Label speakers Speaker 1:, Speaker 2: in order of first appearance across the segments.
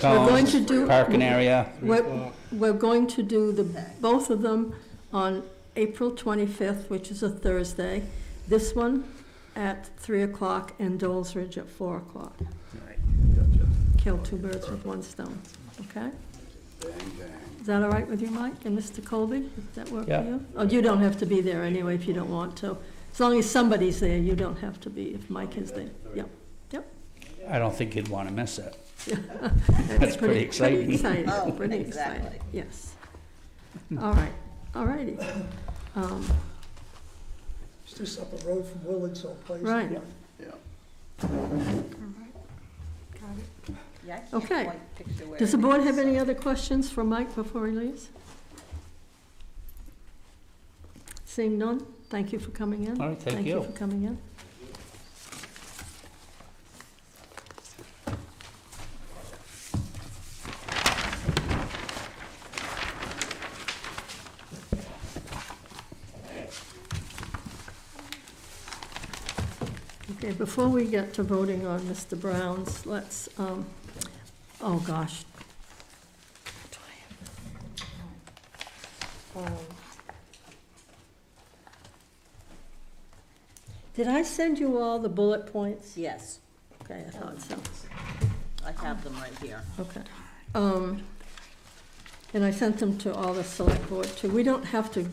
Speaker 1: going
Speaker 2: cones,
Speaker 1: to do-
Speaker 2: parking area.
Speaker 1: We're, we're going to do the, both of them on April 25th, which is a Thursday. This one at 3 o'clock and Dole's Ridge at 4 o'clock. Kill two birds with one stone, okay? Is that all right with you, Mike and Mr. Colby? Does that work for
Speaker 2: Yeah.
Speaker 1: you? Oh, you don't have to be there anyway if you don't want to. As long as somebody's there, you don't have to be if Mike is there. Yep, yep.
Speaker 2: I don't think you'd want to miss it.
Speaker 1: That's
Speaker 2: pretty exciting.
Speaker 1: Pretty exciting,
Speaker 3: Oh,
Speaker 1: pretty
Speaker 3: exactly.
Speaker 1: exciting, yes. All right, all righty. Um,
Speaker 4: It's just up the road from Willard someplace.
Speaker 1: Right.
Speaker 3: Yeah, I can't
Speaker 1: Okay.
Speaker 3: quite picture where
Speaker 1: Does the
Speaker 3: it
Speaker 1: board
Speaker 3: is,
Speaker 1: have any
Speaker 3: so-
Speaker 1: other questions for Mike before he leaves? Seeing none, thank you for coming in.
Speaker 2: All right, thank
Speaker 1: Thank you
Speaker 2: you.
Speaker 1: for coming in. Okay, before we get to voting on Mr. Brown's, let's, um, oh gosh. Do I have- Um, Did I send you all the bullet points?
Speaker 3: Yes,
Speaker 1: Okay, I thought so,
Speaker 3: I have them right here.
Speaker 1: okay. Um, And I sent them to all the select board too. We don't have to,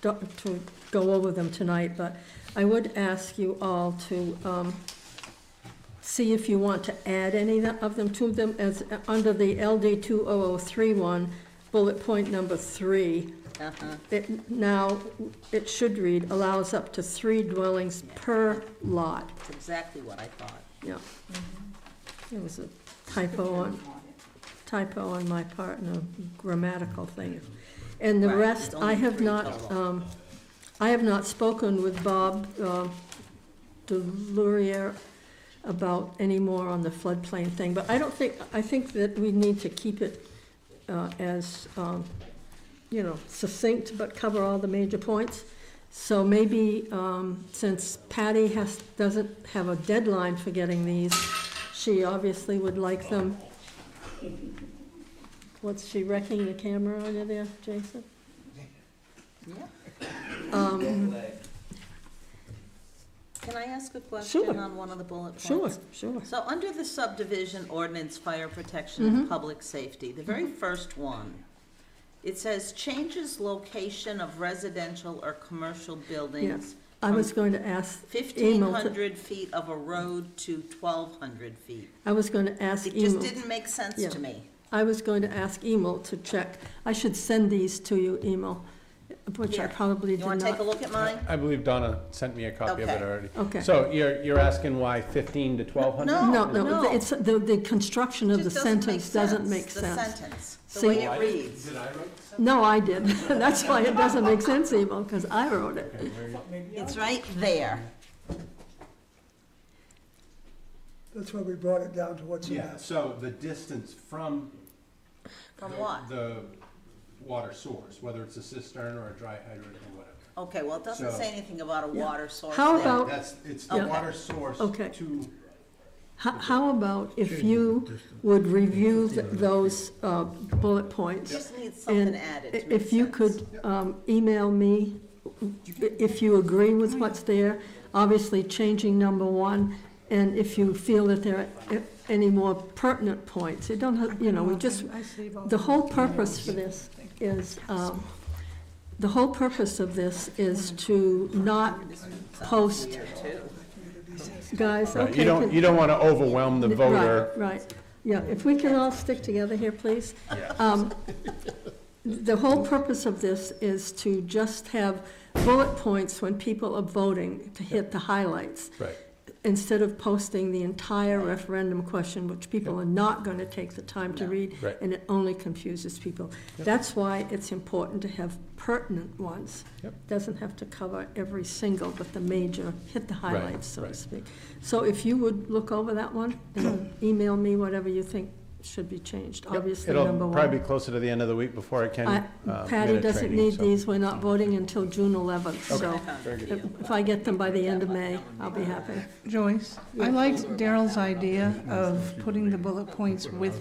Speaker 1: do- to go over them tonight, but I would ask you all to, um, see if you want to add any of them to them as, uh, under the LD two oh oh three one, bullet point number three.
Speaker 3: Uh-huh,
Speaker 1: It now, it should read, allows up to three dwellings per lot.
Speaker 3: it's exactly what I thought.
Speaker 1: Yeah. It was a typo on, typo on my part and a grammatical thing. And the
Speaker 3: Right,
Speaker 1: rest,
Speaker 3: it's
Speaker 1: I
Speaker 3: only
Speaker 1: have
Speaker 3: three
Speaker 1: not,
Speaker 3: total.
Speaker 1: um, I have not spoken with Bob, uh, Delurier about any more on the floodplain thing, but I don't think, I think that we need to keep it, uh, as, um, you know, succinct, but cover all the major points. So maybe, um, since Patty has, doesn't have a deadline for getting these, she obviously would like them. What's she wrecking the camera on you there, Jason?
Speaker 3: Yeah.
Speaker 1: Um,
Speaker 3: Can I ask a question
Speaker 1: Sure.
Speaker 3: on one of the bullet points?
Speaker 1: sure, sure.
Speaker 3: So under the subdivision ordinance, fire protection
Speaker 1: Mm-hmm.
Speaker 3: and public safety, the very first one, it says changes location of residential or commercial buildings
Speaker 1: I was going to ask
Speaker 3: fifteen
Speaker 1: Emil, to-
Speaker 3: hundred feet of a road to twelve hundred feet.
Speaker 1: I was going to ask
Speaker 3: It just
Speaker 1: Emil,
Speaker 3: didn't make sense
Speaker 1: Yeah.
Speaker 3: to me.
Speaker 1: I was going to ask Emil to check. I should send these to you, Emil, which I
Speaker 3: Here,
Speaker 1: probably
Speaker 3: You
Speaker 1: did
Speaker 3: wanna take a
Speaker 1: not.
Speaker 3: look at mine?
Speaker 5: I believe Donna sent me a copy of it
Speaker 3: Okay.
Speaker 5: already.
Speaker 1: Okay.
Speaker 5: So you're, you're asking why fifteen to twelve hundred?
Speaker 3: No.
Speaker 1: No, no,
Speaker 3: No.
Speaker 1: it's, the, the construction of the
Speaker 3: Just doesn't make
Speaker 1: sentence doesn't
Speaker 3: sense,
Speaker 1: make
Speaker 3: The
Speaker 1: sense.
Speaker 3: sentence,
Speaker 1: See-
Speaker 3: the way it reads.
Speaker 1: No, I did. That's why it doesn't make sense, Emil, because I wrote it.
Speaker 3: It's right there.
Speaker 4: That's why we brought it down to what's in
Speaker 6: Yeah,
Speaker 4: that.
Speaker 6: so the distance from.
Speaker 3: From
Speaker 6: the-
Speaker 3: what?
Speaker 6: The water source, whether it's a cistern or a dry hydrant or whatever.
Speaker 3: Okay, well, it doesn't
Speaker 6: So-
Speaker 3: say anything about a water source
Speaker 1: How
Speaker 3: there.
Speaker 1: about- Oh.
Speaker 6: That's, it's the
Speaker 1: Yeah.
Speaker 6: water source
Speaker 1: Okay.
Speaker 6: to,
Speaker 1: How, how about if you would review th- those uh, bullet points?
Speaker 3: Just need something
Speaker 1: And
Speaker 3: added
Speaker 1: i-
Speaker 3: to make
Speaker 1: if you
Speaker 3: sense.
Speaker 1: could um, email me, if you agree with what's there, obviously changing number one, and if you feel that there are any more pertinent points, it don't, have- you know, we just, the whole purpose for this is, um, the whole purpose of this is to not post,
Speaker 3: Here, too.
Speaker 1: guys, okay.
Speaker 5: You don't, you don't want to overwhelm the
Speaker 1: Right,
Speaker 5: voter.
Speaker 1: Right, yeah, if we can all stick together here, please. Um, The whole purpose of this is to just have bullet points when people are voting to hit the highlights,
Speaker 5: Right.
Speaker 1: instead of posting the entire referendum question, which people are not going to take the time to read,
Speaker 5: Right.
Speaker 1: and it only confuses people. That's why it's important to have pertinent ones.
Speaker 5: Yep.
Speaker 1: Doesn't have to cover every single, but the major, hit the highlights, so to
Speaker 5: right.
Speaker 1: speak. So if you would look over that one, and email me whatever you think should be changed, obviously,
Speaker 5: It'll
Speaker 1: number one.
Speaker 5: probably be closer to the end of the week before I can.
Speaker 1: I-
Speaker 5: uh,
Speaker 1: Patty
Speaker 5: minute
Speaker 1: doesn't
Speaker 5: training,
Speaker 1: need
Speaker 5: so- Mm-hmm.
Speaker 1: these, we're not voting until June eleventh, so
Speaker 3: Very
Speaker 1: if if I get them by the end of May, I'll be happy.
Speaker 7: Joyce, I liked Daryl's idea of putting the bullet points with